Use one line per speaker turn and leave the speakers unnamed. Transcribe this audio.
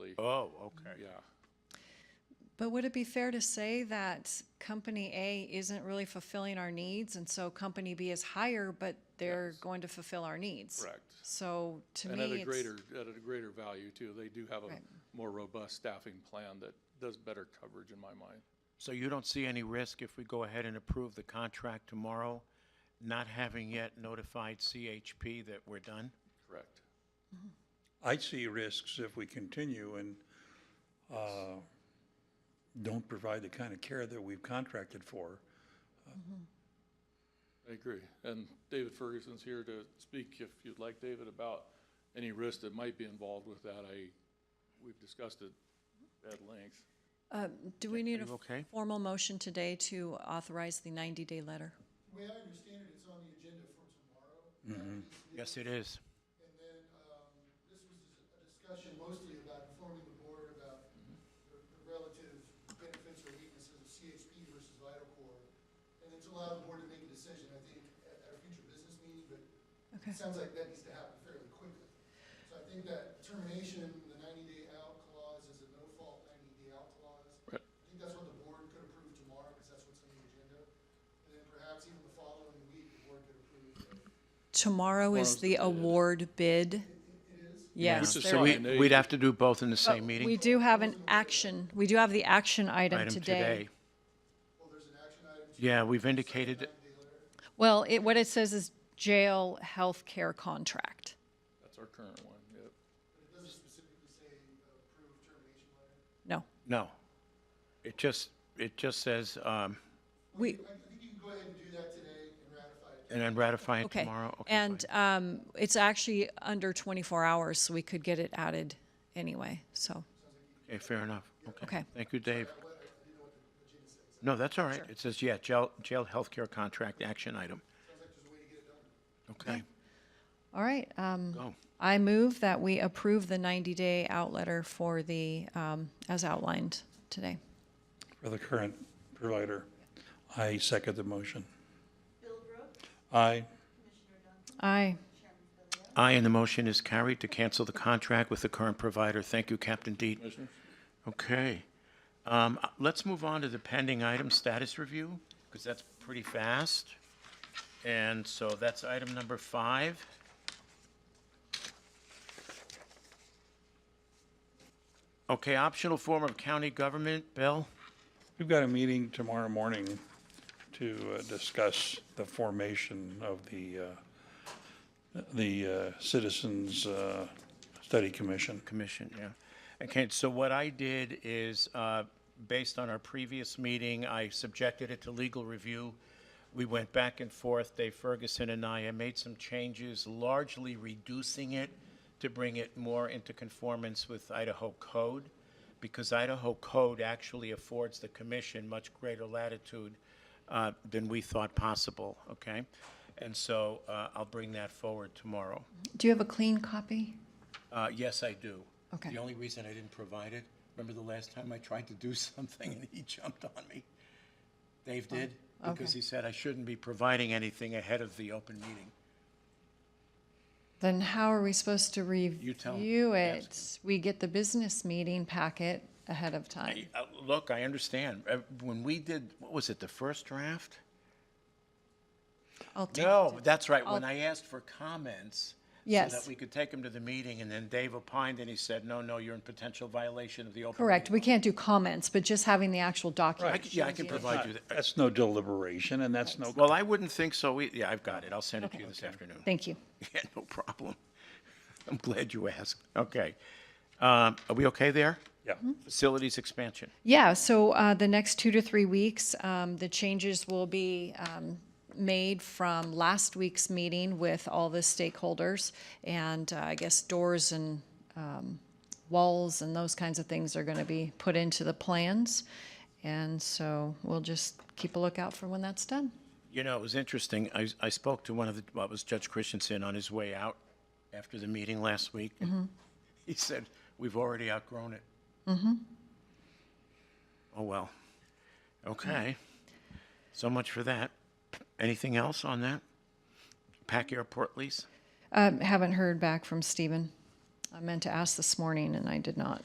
Oh, okay.
Yeah.
But would it be fair to say that company A isn't really fulfilling our needs, and so company B is higher, but they're
Yes.
going to fulfill our needs?
Correct.
So to
And
me,
at a
it's-
greater, at a greater value too. They do have
Right.
a more robust staffing plan that does better coverage in my mind.
So you don't see any risk if we go ahead and approve the contract tomorrow, not having yet notified CHP that we're done?
Correct.
I see risks if we continue and uh, don't provide the kind of care that we've contracted for.
I agree. And David Ferguson's here to speak if you'd like, David, about any risk that might be involved with that. I, we've discussed it at length.
Do we need a
you okay?
formal motion today to authorize the 90-day letter?
way I understand it, it's on the agenda for tomorrow.
Yes, it is.
And then, um, this was a discussion mostly about informing the board about the the relative benefits or weaknesses of CHP versus Vital Core. And then to allow the board to make a decision, I think, at our future business meeting, but
Okay.
it sounds like that needs to happen fairly quickly. So I think that termination, the ninety-day out clause is a no-fault ninety-day out clause.
Right.
I think that's what the board could approve tomorrow, because that's what's on the agenda. And then perhaps even the following week, the board could approve a
Tomorrow
Tomorrow's
is
the
the
bid.
award bid. Yes.
Which is
there-
fine.
So we,
They-
we'd have to do both in the same
We
meeting?
do have an action, we do have the action item
Item
today.
today. Yeah, we've indicated,
Well, it, what it says is jail healthcare contract.
That's our current one, yep.
uh,
No.
no. It just, it just says, um,
We,
I think you can go ahead and do that today and ratify it.
and then ratify it
okay.
tomorrow? Okay,
And,
fine.
um, it's actually under 24 hours, so we could get it added anyway, so,
Okay, fair enough. Okay.
Okay.
Thank you, Dave. No, that's all right. It says, yeah, jail, jail healthcare contract action item. Okay,
all right. Um,
go.
I move that we approve the 90-day out letter for the, um, as outlined today.
For the current provider, I second the motion.
Bill Brooks,
Aye.
Commissioner Duncan,
Aye.
Chairman Philio,
Aye, and the motion is carried to cancel the contract with the current provider. Thank you, Captain Deet.
Commissioners?
Okay. Um, uh, Let's move on to the pending item status review, because that's pretty fast. And so that's item number five. Okay, optional form of county government, Bill?
We've got a meeting tomorrow morning to uh, discuss the formation of the, uh, the uh, Citizens uh, Study Commission.
Commission, yeah. Okay, so what I did is, uh, based on our previous meeting, I subjected it to legal review. We went back and forth, Dave Ferguson and I, I made some changes, largely reducing it to bring it more into conformance with Idaho code, because Idaho code actually affords the commission much greater latitude uh, than we thought possible, okay? And so uh, I'll bring that forward tomorrow.
Do you have a clean copy?
Uh, yes, I do.
Okay.
The only reason I didn't provide it, remember the last time I tried to do something and he jumped on me? Dave did, because
okay.
he said I shouldn't be providing anything ahead of the open meeting.
Then how are we supposed to
tell 'em.
review
Ask
it? We get the business meeting packet ahead of time.
Uh, Look, I understand. Uh, When we did, what was it, the first draft?
I'll take
No,
it.
that's right, when
I'll-
I asked for comments. So
Oh. Yes.
that we could take them to the meeting, and then Dave opined and he said, no, no, you're in potential violation of the open.
Correct,
meeting
we can't do comments, but just having the actual
law." I
document.
c- Yeah, I
shows
can
you.
provide you that.
That's no deliberation and that's no,
Well, I wouldn't think so. e- Yeah, I've got it. I'll send it to you this afternoon.
Thank you.
Yeah, no problem. I'm glad you asked. Okay. Um, Are we okay there?
yeah.
Facilities expansion.
Yeah, so uh, the next two to three weeks, um, the changes will be um, made from last week's meeting with all the stakeholders. And uh, I guess doors and um, walls and those kinds of things are going to be put into the plans. And so we'll just keep a lookout for when that's done.
You know, it was interesting. I, I spoke to one of the, well, it was Judge Christensen on his way out after the meeting last week. He said, we've already outgrown it. Mm-hmm. Oh, well. Okay. So much for that. Anything else on that? Pack airport lease?
Um, Haven't heard back from Stephen. I meant to ask this morning and I did not.